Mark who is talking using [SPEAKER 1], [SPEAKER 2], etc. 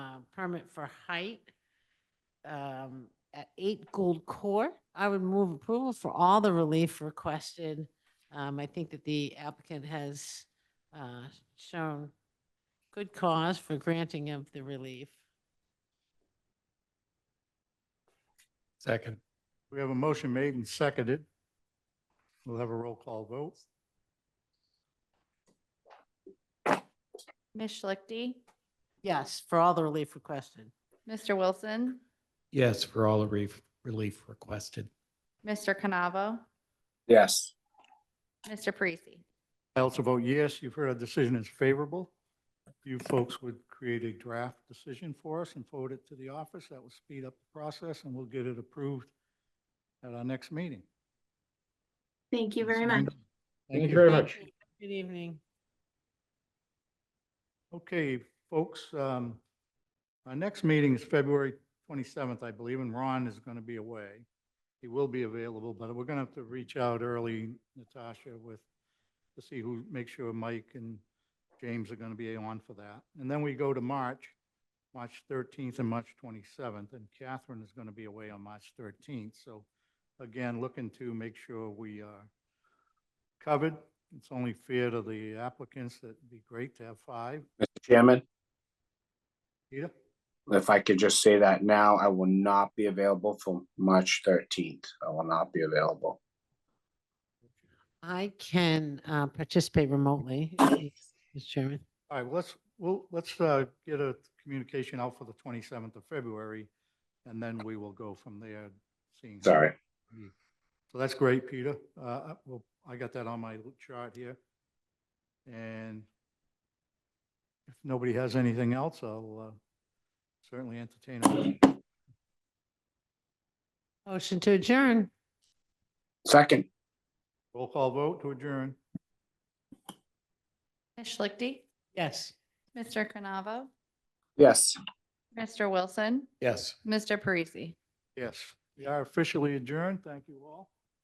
[SPEAKER 1] uh, permit for height um, at 8 Gold Court. I would move approval for all the relief requested. Um, I think that the applicant has uh, shown good cause for granting of the relief.
[SPEAKER 2] Second.
[SPEAKER 3] We have a motion made and seconded. We'll have a roll call vote.
[SPEAKER 4] Ms. Schlichty,
[SPEAKER 1] Yes, for all the relief requested.
[SPEAKER 4] Mr. Wilson,
[SPEAKER 2] Yes, for all the relief, relief requested.
[SPEAKER 4] Mr. Canavo,
[SPEAKER 5] yes,
[SPEAKER 4] Mr. Parisi.
[SPEAKER 3] I also vote yes. You've heard our decision is favorable. You folks would create a draft decision for us and forward it to the office. That will speed up the process and we'll get it approved at our next meeting.
[SPEAKER 6] Thank you very much.
[SPEAKER 3] Thank you.
[SPEAKER 2] very
[SPEAKER 1] Thank you. Good evening.
[SPEAKER 3] Okay, folks, um, our next meeting is February twenty-seventh, I believe, and Ron is going to be away. He will be available, but we're going to have to reach out early, Natasha, with, to see who, make sure Mike and James are going to be on for that. And then we go to March, March thirteenth and March twenty-seventh, and Catherine is going to be away on March thirteenth. So again, looking to make sure we are covered. It's only fair to the applicants that it'd be great to have five.
[SPEAKER 5] Mr. Chairman,
[SPEAKER 3] Peter?
[SPEAKER 5] if I could just say that now, I will not be available for March thirteenth. I will not be available.
[SPEAKER 1] I can uh, participate remotely, Mr. Chairman.
[SPEAKER 3] All right, well, let's, we'll, let's uh, get a communication out for the 27th of February, and then we will go from there, seeing. how-
[SPEAKER 5] Sorry.
[SPEAKER 3] So that's great, Peter. Uh, I- Well, I got that on my little chart here. And if nobody has anything else, I'll uh, certainly entertain. it.
[SPEAKER 1] Motion to adjourn.
[SPEAKER 5] Second,
[SPEAKER 3] Roll call vote to adjourn.
[SPEAKER 4] Ms. Schlichty,
[SPEAKER 1] Yes.
[SPEAKER 4] Mr. Canavo,
[SPEAKER 5] yes.
[SPEAKER 4] Mr. Wilson,
[SPEAKER 2] Yes.
[SPEAKER 4] Mr. Parisi.
[SPEAKER 3] Yes, we are officially adjourned. Thank you all.